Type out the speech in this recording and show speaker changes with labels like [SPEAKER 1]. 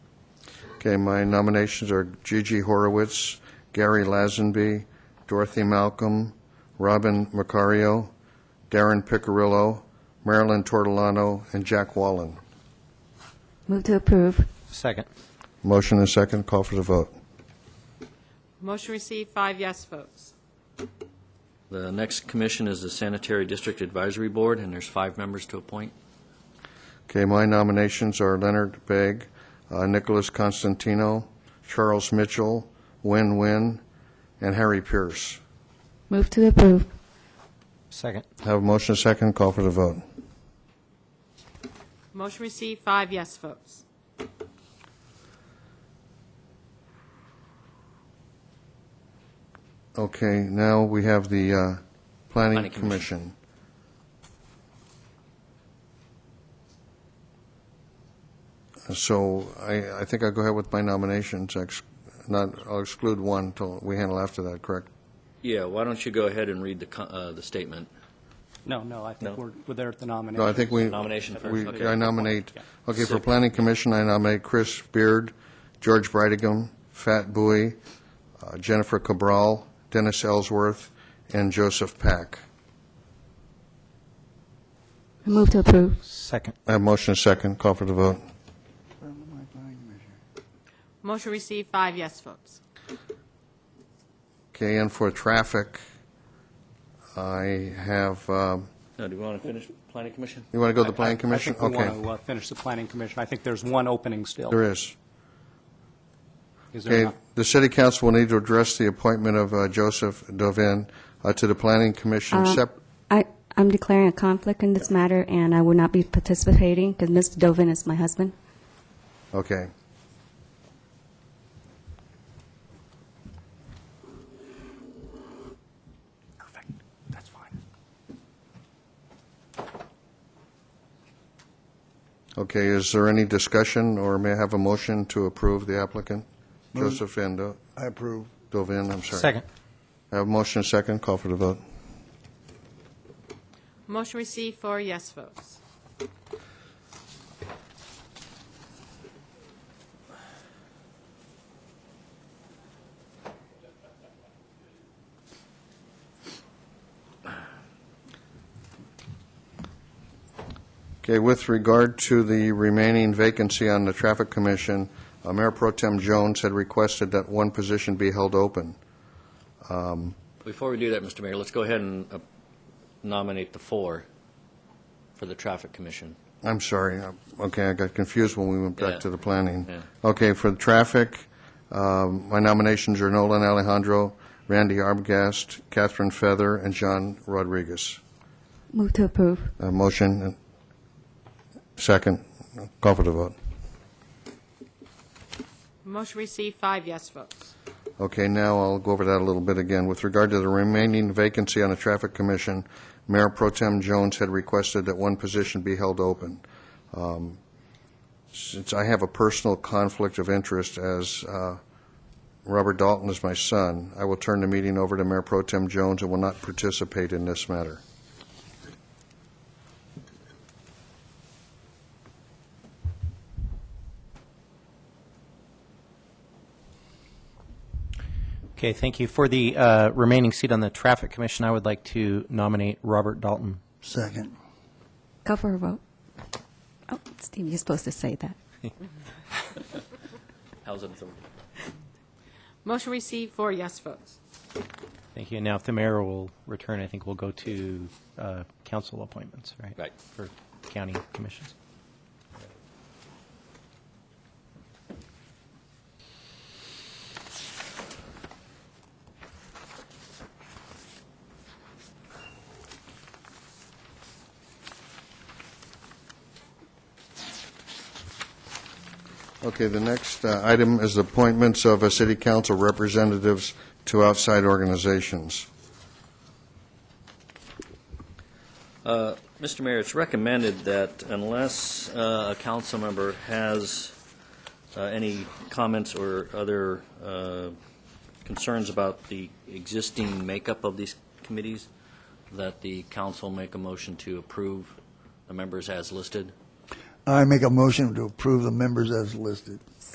[SPEAKER 1] Okay, my nominations are Gigi Horowitz, Gary Lazenby, Dorothy Malcolm, Robin Macario, Darren Picarillo, Marilyn Tortolano, and Jack Wallen.
[SPEAKER 2] Move to approve.
[SPEAKER 3] Second.
[SPEAKER 1] Motion and second, call for the vote.
[SPEAKER 4] Motion received, five yes votes.
[SPEAKER 5] The next commission is the Sanitary District Advisory Board, and there's five members to appoint.
[SPEAKER 1] Okay, my nominations are Leonard Begg, uh, Nicholas Constantino, Charles Mitchell, Win Win, and Harry Pierce.
[SPEAKER 2] Move to approve.
[SPEAKER 3] Second.
[SPEAKER 1] Have a motion and second, call for the vote.
[SPEAKER 4] Motion received, five yes votes.
[SPEAKER 1] Okay, now we have the uh, Planning
[SPEAKER 5] Planning Commission.
[SPEAKER 1] Commission. So I, I think I'll go ahead with my nominations, ex- not, I'll exclude one until we handle after that, correct?
[SPEAKER 5] Yeah, why don't you go ahead and read the, co- uh, the statement?
[SPEAKER 6] No, no, I think
[SPEAKER 5] No.
[SPEAKER 6] we're, we're there at the
[SPEAKER 1] No, I
[SPEAKER 6] nomination.
[SPEAKER 1] think we.
[SPEAKER 5] Nomination first,
[SPEAKER 1] we-
[SPEAKER 5] okay.
[SPEAKER 1] I nominate,
[SPEAKER 6] Yeah.
[SPEAKER 1] okay, for
[SPEAKER 5] Second.
[SPEAKER 1] Planning Commission, I nominate Chris Beard, George Brightigam, Fat Bowie, uh, Jennifer Cabral, Dennis Ellsworth, and Joseph Pack.
[SPEAKER 2] Move to approve.
[SPEAKER 3] Second.
[SPEAKER 1] I have motion and second, call for the vote.
[SPEAKER 4] Motion received, five yes votes.
[SPEAKER 1] Okay, and for traffic, I have, um,
[SPEAKER 5] Now, do we want to finish Planning Commission?
[SPEAKER 1] you want to go to the planning
[SPEAKER 6] I-
[SPEAKER 1] commission?
[SPEAKER 6] I think we want
[SPEAKER 1] Okay,
[SPEAKER 6] to finish the planning commission. I think there's one opening still.
[SPEAKER 1] there is.
[SPEAKER 6] Is there
[SPEAKER 1] Okay,
[SPEAKER 6] not?
[SPEAKER 1] the city council will need to address the appointment of uh, Joseph Dovin uh, to the planning commission sep-
[SPEAKER 2] I, I'm declaring a conflict in this matter, and I will not be participating because Mr. Dovin is my husband.
[SPEAKER 1] Okay.
[SPEAKER 6] Perfect. That's fine.
[SPEAKER 1] Okay, is there any discussion, or may I have a motion to approve the applicant? Joseph and Do-
[SPEAKER 7] I approve.
[SPEAKER 1] Dovin, I'm sorry.
[SPEAKER 3] Second.
[SPEAKER 1] I have a motion, second, call for the vote.
[SPEAKER 4] Motion received, four yes votes.
[SPEAKER 1] Okay, with regard to the remaining vacancy on the Traffic Commission, uh, Mayor Pro Tem Jones had requested that one position be held open.
[SPEAKER 5] Before we do that, Mr. Mayor, let's go ahead and uh, nominate the four for the Traffic Commission.
[SPEAKER 1] I'm sorry, uh, okay, I got confused when we went
[SPEAKER 5] Yeah.
[SPEAKER 1] back to the planning.
[SPEAKER 5] Yeah.
[SPEAKER 1] Okay, for the Traffic, um, my nominations are Nolan Alejandro, Randy Arbogast, Catherine Feather, and John Rodriguez.
[SPEAKER 2] Move to approve.
[SPEAKER 1] A motion, and second, call for the vote.
[SPEAKER 4] Motion received, five yes votes.
[SPEAKER 1] Okay, now I'll go over that a little bit again. With regard to the remaining vacancy on the Traffic Commission, Mayor Pro Tem Jones had requested that one position be held open. Um, Since I have a personal conflict of interest as uh, Robert Dalton is my son, I will turn the meeting over to Mayor Pro Tem Jones and will not participate in this matter.
[SPEAKER 3] Okay, thank you. For the uh, remaining seat on the Traffic Commission, I would like to nominate Robert Dalton.
[SPEAKER 7] Second.
[SPEAKER 2] Call for a vote. Oh, Steve, you're supposed to say that.
[SPEAKER 5] How's it? feel?
[SPEAKER 4] Motion received, four yes votes.
[SPEAKER 3] Thank you. And now, if the mayor will return, I think we'll go to uh, council appointments, right?
[SPEAKER 5] Right.
[SPEAKER 3] For county commissions.
[SPEAKER 1] Okay, the next uh, item is appointments of uh, city council representatives to outside organizations.
[SPEAKER 5] Mr. Mayor, it's recommended that unless uh, a council member has uh, any comments or other uh, concerns about the existing makeup of these committees, that the council make a motion to approve the members as listed.
[SPEAKER 7] I make a motion to approve the members as listed.